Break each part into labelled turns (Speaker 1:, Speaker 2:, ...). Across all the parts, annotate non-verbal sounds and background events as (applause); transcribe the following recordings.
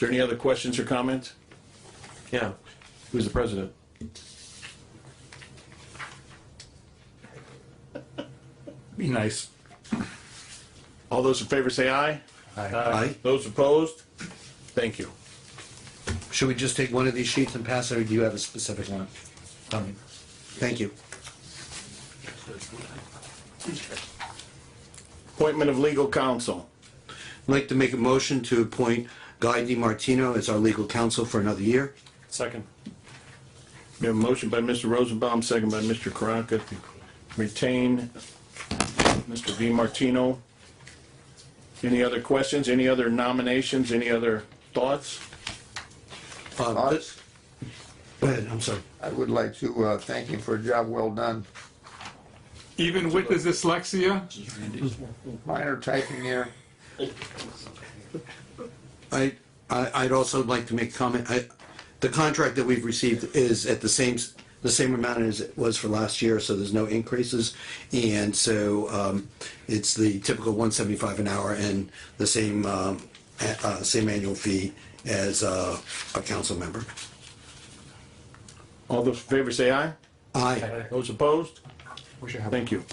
Speaker 1: there any other questions or comments? Yeah, who's the president?
Speaker 2: Be nice.
Speaker 1: All those in favor say aye.
Speaker 3: Aye.
Speaker 1: Those opposed? Thank you.
Speaker 3: Should we just take one of these sheets and pass it, or do you have a specific one? Um, Thank you.
Speaker 1: Appointment of legal counsel.
Speaker 3: I'd like to make a motion to appoint Guy DiMartino as our legal counsel for another year.
Speaker 1: Second. We have a motion by Mr. Rosenbaum, second by Mr. Karanka to retain Mr. V. Martino. Any other questions, any other nominations, any other thoughts?
Speaker 3: Um,
Speaker 4: I,
Speaker 3: th- Go ahead, I'm sorry.
Speaker 4: I would like to uh, thank you for a job well done.
Speaker 5: Even with his dyslexia,
Speaker 4: Minor typing error.
Speaker 3: I, I- I'd also like to make comment, I, the contract that we've received is at the same, s- the same amount as it was for last year, so there's no increases. And so um, it's the typical 175 an hour and the same, um, a- uh, same annual fee as uh, a council member.
Speaker 1: All those in favor say aye.
Speaker 3: Aye.
Speaker 1: Those opposed? Thank you.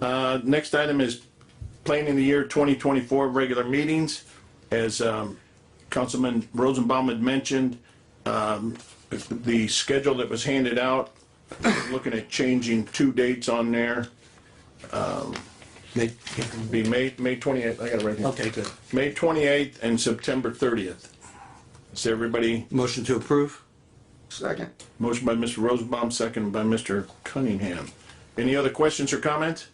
Speaker 1: Uh, Next item is planning the year 2024 regular meetings. As um, Councilman Rosenbaum had mentioned, um, the schedule that was handed out, looking at changing two dates on there,
Speaker 3: Make-
Speaker 1: be May, May 28th, I got it right here.
Speaker 3: Okay, good.
Speaker 1: May 28th and September 30th. Is everybody,
Speaker 3: Motion to approve?
Speaker 4: Second.
Speaker 1: motion by Mr. Rosenbaum, second by Mr. Cunningham. Any other questions or comments?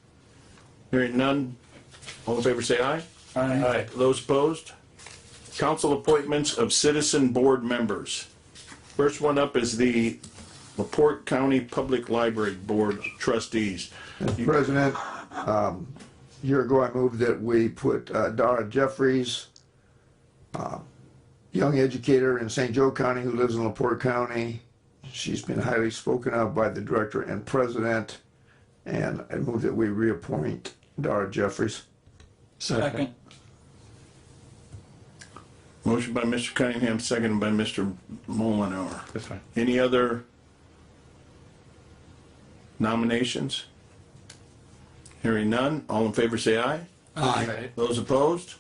Speaker 1: Hearing none, all in favor say aye. Aye. Those opposed? Council appointments of citizen board members. First one up is the Laporte County Public Library Board Trustees.
Speaker 4: President, um, a year ago, I moved that we put uh, Dara Jeffries, uh, young educator in St. Joe County who lives in LaPorte County. She's been highly spoken of by the director and president, and I moved that we reappoint Dara Jeffries.
Speaker 2: Second.
Speaker 1: Motion by Mr. Cunningham, second by Mr. Mullenhour.
Speaker 2: That's fine.
Speaker 1: Any other nominations? Hearing none, all in favor say aye.
Speaker 3: Aye.
Speaker 1: Those opposed?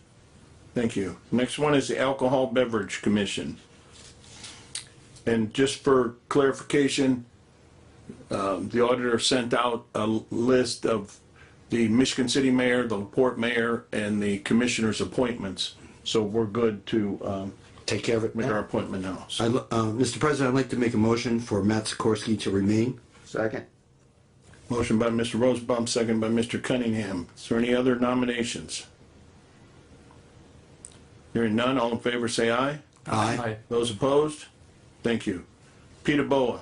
Speaker 1: Thank you. Next one is the Alcohol Beverage Commission. And just for clarification, um, the auditor sent out a list of the Michigan City Mayor, the Laporte Mayor, and the Commissioners' appointments. So we're good to um,
Speaker 3: Take care of it.
Speaker 1: make our
Speaker 3: Matt.
Speaker 1: appointment now.
Speaker 3: I,
Speaker 1: So
Speaker 3: lo- uh, Mr. President, I'd like to make a motion for Matt Sikorsky to remain.
Speaker 4: Second.
Speaker 1: Motion by Mr. Rosebaum, second by Mr. Cunningham. Is there any other nominations? Hearing none, all in favor say aye.
Speaker 3: Aye.
Speaker 1: Those opposed? Thank you. Peter Boa,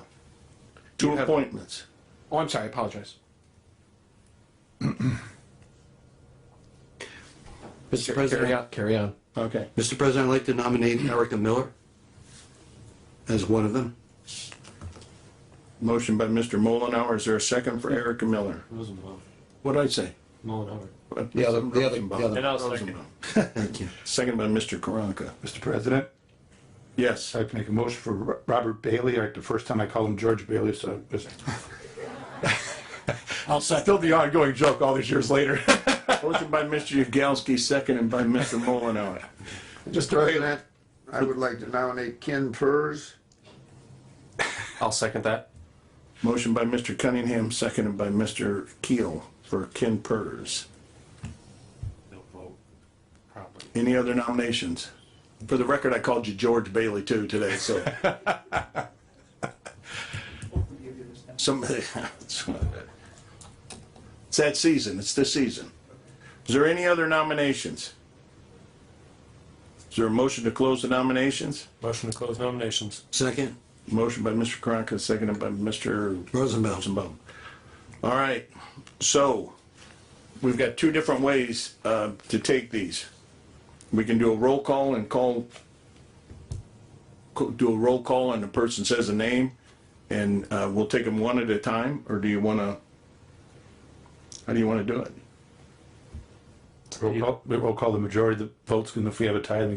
Speaker 1: two
Speaker 6: have-
Speaker 1: appointments.
Speaker 6: Oh, I'm sorry, I apologize.
Speaker 3: Mr.
Speaker 6: Carry
Speaker 3: President,
Speaker 6: on, carry on.
Speaker 1: Okay.
Speaker 3: Mr. President, I'd like to nominate Erica Miller as one of them.
Speaker 1: Motion by Mr. Mullenhour. Is there a second for Erica Miller? What'd I say?
Speaker 3: The other, the other, the
Speaker 1: Rosenbaum.
Speaker 3: other.
Speaker 1: Rosenbaum.
Speaker 3: Thank you.
Speaker 1: Second by Mr. Karanka.
Speaker 7: Mr. President,
Speaker 1: Yes.
Speaker 7: I'd like to make a motion for Ro- Robert Bailey. Like the first time I called him George Bailey, so it's
Speaker 2: I'll second.
Speaker 7: still the ongoing joke all these years later.
Speaker 1: (laughs) Motion by Mr. Yagowski, seconded by Mr. Mullenhour.
Speaker 7: Just throwing
Speaker 4: President, I would like to nominate Ken Purz.
Speaker 6: I'll second that.
Speaker 1: Motion by Mr. Cunningham, seconded by Mr. Keel for Ken Purrs. Any other nominations? For the record, I called you George Bailey too today, so. (laughs) Somebody, it's that season, it's this season. Is there any other nominations? Is there a motion to close the nominations?
Speaker 6: Motion to close nominations.
Speaker 3: Second,
Speaker 1: Motion by Mr. Karanka, seconded by Mr.
Speaker 3: Rosenbaum.
Speaker 1: Rosenbaum. All right, so we've got two different ways uh, to take these. We can do a roll call and call, co- do a roll call and the person says a name, and uh, we'll take them one at a time, or do you want to, how do you want to do it?
Speaker 7: We'll call, we'll call the majority of the votes, and if we have a tie, then